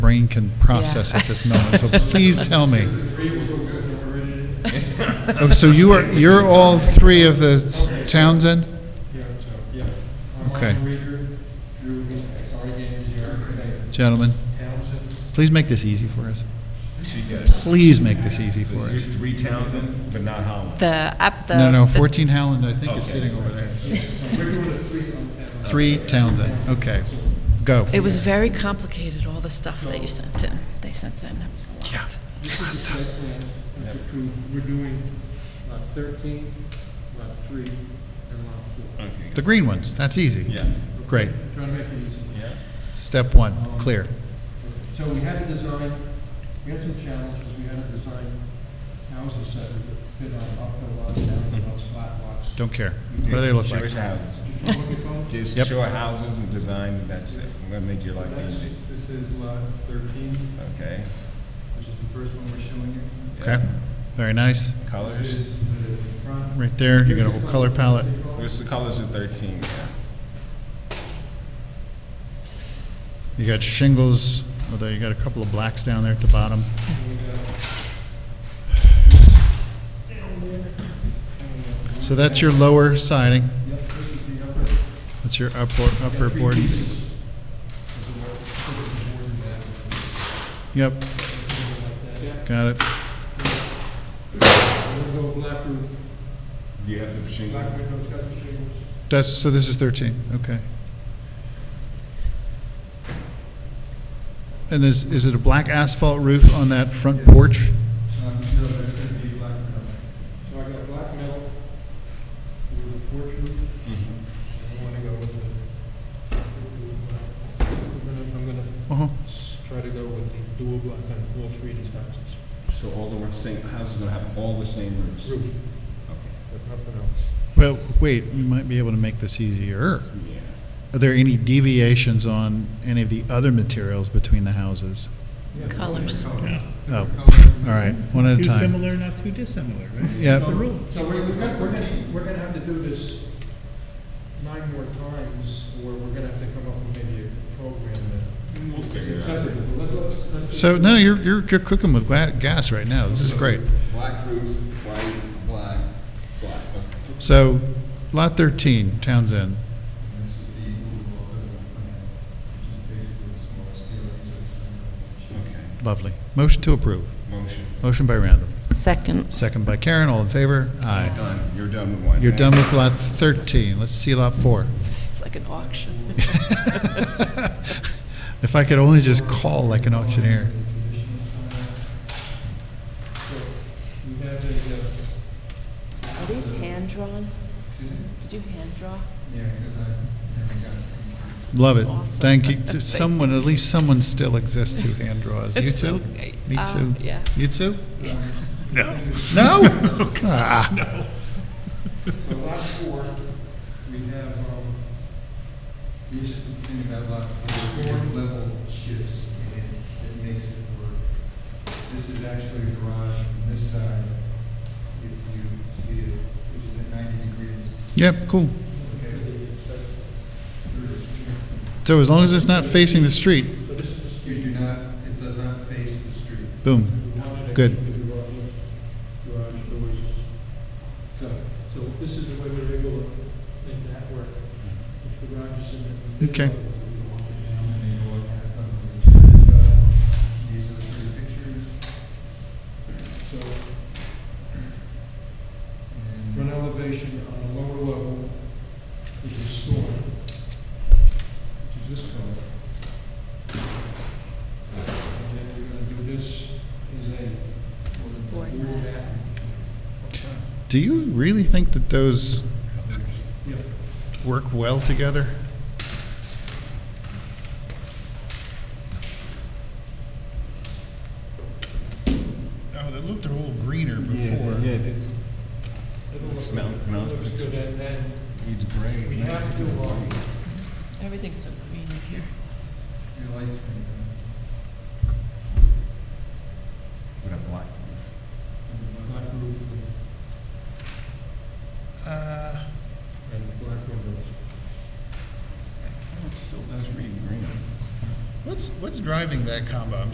brain can process at this moment, so please tell me. Oh, So you are, you're all three of the Townsend? Yeah, so, yeah. Okay. Armand Reader, Drew, sorry, James, you're, Gentlemen, Townsend, please make this easy for us. So you guys, Please make this easy for there's us. three Townsend, but not Holland. The, up the. No, no, the- 14 Howland, I think is Okay. sitting over there. we're doing a three on Townsend. Three Townsend, okay, go. It was very complicated, all the stuff that you sent in, they sent in, it was a lot. Yeah. This is the site plan, that's approved, we're doing lot thirteen, lot three, and lot four. Okay. The green ones, that's easy. Yeah. Great. Trying to make it easy. Yeah. Step one, clear. So we had to design, we had some challenges, we had to design houses that would fit on uphill lots, downhill lots, flat lots. Don't care. What do they look like? Jewish houses. What we call it? Just Yep. show houses and design, and that's it. We're gonna make your life easy. This is lot thirteen, Okay. which is the first one we're showing you. Okay, very nice. Colors, Right there, you got a whole color palette. where's the colors of thirteen? Yeah. You got shingles, although you got a couple of blacks down there at the bottom. So that's your lower siding. That's your upper, upper board. Yep. Got it. You have the shingle. That's, so this is 13, okay. And is, is it a black asphalt roof on that front porch? So I got black metal with a porch roof. Mm-hmm. I want to go with the, I'm going to Uh-huh. try to go with the dual black on all three of these houses. So all the one- same houses gonna have all the same roofs. Roof, Okay. but nothing else. Well, wait, we might be able to make this easier. Yeah. Are there any deviations on any of the other materials between the houses? Colors. Oh, all right, one at Too a time. similar, not too dissimilar, right? Yeah. That's the rule. So we're, we're gonna, we're gonna, we're gonna have to do this nine more times, or we're gonna have to come up with maybe a program that. We'll figure it It's out. acceptable, but let's- let's- So, no, you're, you're you're cooking with gla- gas right now, this is great. Black roof, white, black, black. Okay. So, Lot 13, Townsend. This is the overall building plan, which is basically the small scale, so it's, uh, Okay. Lovely. Motion to approve. Motion. Motion by Randall. Second. Second by Karen, all in favor? Aye. Done. You're done with one. You're Thank done you. with Lot 13, let's see Lot 4. It's like an auction. If I could only just call like an auctioneer. so We have a, uh, Are these hand-drawn? Did you hand-draw? Yeah, because I never got it from you. Love it. Awesome. Thank you. Someone, at least someone still exists who hand draws. You It's so too? great. Me Uh, too? yeah. You too? No. No? Oh, Ah, so lot four, we have, um, The interesting thing about lot four, floor level shifts, and it, it makes it work. This is actually a garage from this side, if you see it, which is at ninety degrees. Yep, cool. Okay. So as long as it's not facing the street, You do not, it does not face the street. boom. we wanted to Good. keep the garage, garage doors. So, so this is the way we're able to make that work. If the garage is in the. Okay. And then you walk past them, which is, uh, These are the three pictures, So and. from an elevation on a lower level, which is storm, which is this color. And then we're gonna do this as a board Board map. Do you really think that those Yeah. work well together? Oh, they looked a little greener before. Yeah, it did. It'll look- Smell, it no. Looks good, and then He's great. we have to, um, Everything's so green in here. Your lights can, uh, With a black roof. and the black black roof Uh, and black windows. It still does read green. What what's, what's driving that combo? I'm